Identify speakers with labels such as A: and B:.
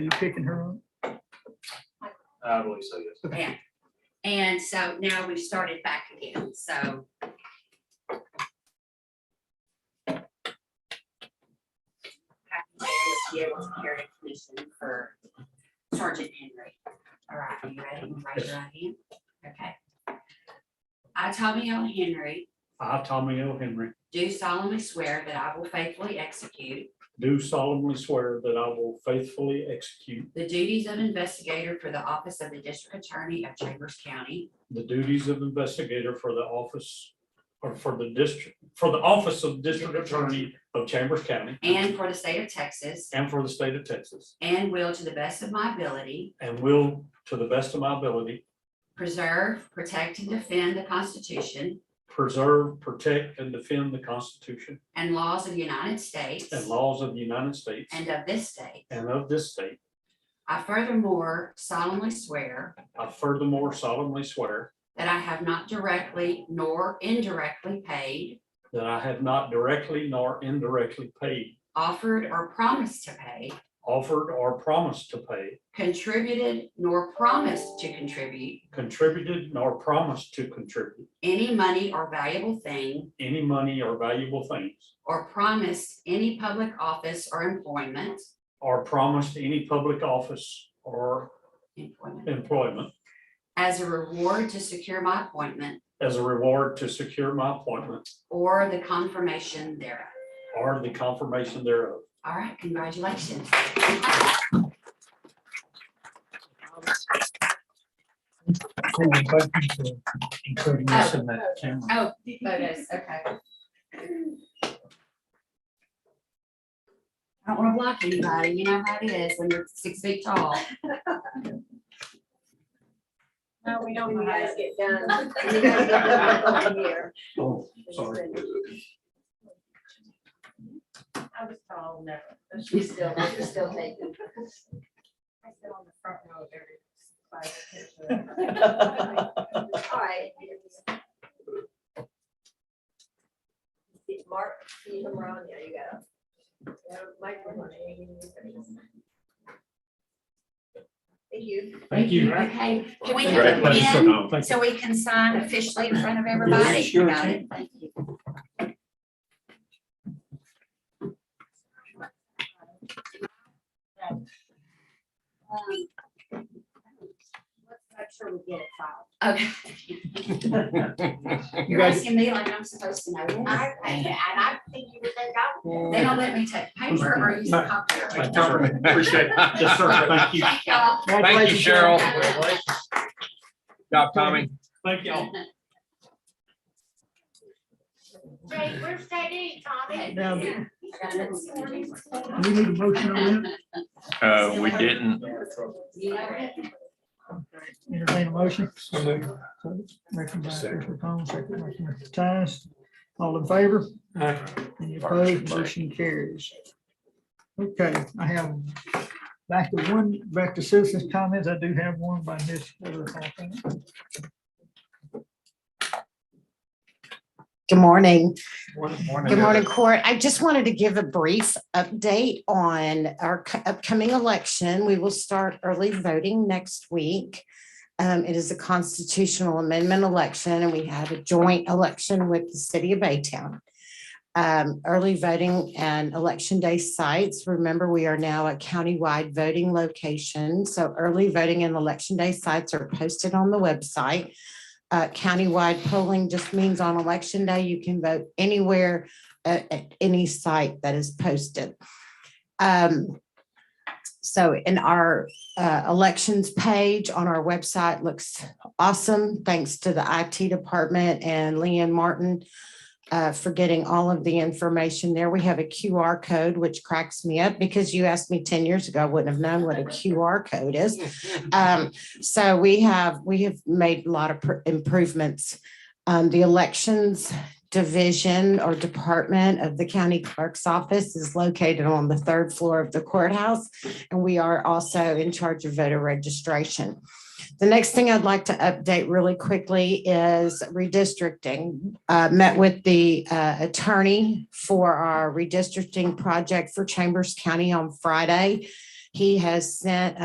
A: you picking her up?
B: I believe so, yes.
C: And so now we started back again, so. Happy to be able to carry a commission for Sergeant Henry. All right, are you ready? Raise your right hand. Okay. I, Tommy O. Henry,
D: I, Tommy L. Henry,
C: do solemnly swear that I will faithfully execute
D: do solemnly swear that I will faithfully execute
C: the duties of investigator for the office of the District Attorney of Chambers County
D: the duties of investigator for the office, or for the district, for the office of District Attorney of Chambers County
C: and for the state of Texas,
D: and for the state of Texas,
C: and will to the best of my ability
D: and will, to the best of my ability,
C: preserve, protect, and defend the Constitution
D: preserve, protect, and defend the Constitution
C: and laws of the United States
D: and laws of the United States
C: and of this state.
D: and of this state.
C: I furthermore solemnly swear
D: I furthermore solemnly swear
C: that I have not directly nor indirectly paid,
D: that I have not directly nor indirectly paid,
C: offered, or promised to pay,
D: offered, or promised to pay,
C: contributed, nor promised to contribute
D: contributed, nor promised to contribute
C: any money or valuable thing,
D: any money or valuable things,
C: or promised any public office or employment,
D: or promised any public office or
C: employment,
D: employment
C: as a reward to secure my appointment
D: as a reward to secure my appointment
C: or the confirmation thereof.
D: or the confirmation thereof.
C: All right, congratulations.
A: Cool, thank you for including us in that camera.
C: Oh, photos, okay. I don't wanna block anybody, you know how it is when you're six feet tall.
E: No, we don't. You guys get done.
F: You guys get done
E: Here.
D: Oh, sorry.
E: I was tall, never, but she's still, she's still taking. I sit on the front row of every class picture.
F: All right. Mark, see him around, there you go. Yeah, microphone. Thank you.
D: Thank you.
C: Okay, can we have a
B: Congratulations.
C: pen so we can sign officially in front of everybody?
D: sure.
C: Got it, thank you.
E: Let's make sure we get it filed.
C: Okay. You're asking me like I'm supposed to know.
E: I, I, and
C: Okay.
E: I think you would think I
C: They don't let me take paper or use a copier.
D: Thank you, sir.
B: Appreciate it.
D: Yes, sir. Thank you.
C: Thank y'all.
G: Thank you, Cheryl.
C: Congratulations.
G: Job, Tommy.
D: Thank y'all.
F: Jay, where's JD, Tommy?
A: Now,
C: Yeah.
A: do we need a motion on that?
G: Uh, we didn't.
C: You know it.
A: Entertain a motion. Motion by Commissioner Combs, second by Commissioner Tynes. All in favor? Any opposed? Motion carries. Okay, I have back to one, back to citizens' comments. I do have one by Ms. Heather Hawthorne.
H: Good morning.
A: Good
H: Good morning, Court. I just wanted to give a brief update on our cu- upcoming election. We will start early voting next week. Um, It is a constitutional amendment election, and we had a joint election with the city of Baytown. Um, Early voting and election day sites. Remember, we are now at countywide voting locations. So early voting and election day sites are posted on the website uh, countywide polling just means on election day, you can vote anywhere at, at any site that is posted. Um, so in our, uh, elections page on our website looks awesome. Thanks to the IT department and Leanne Martin, uh, for getting all of the information there. We have a QR code, which cracks me up because you asked me ten years ago, I wouldn't have known what a QR code is. Um, so we have, we have made a lot of pr- improvements. Um, the elections division or department of the county clerk's office is located on the third floor of the courthouse. And we are also in charge of voter registration. The next thing I'd like to update really quickly is redistricting. Uh, met with the, uh, attorney for our redistricting project for Chambers County on Friday He has sent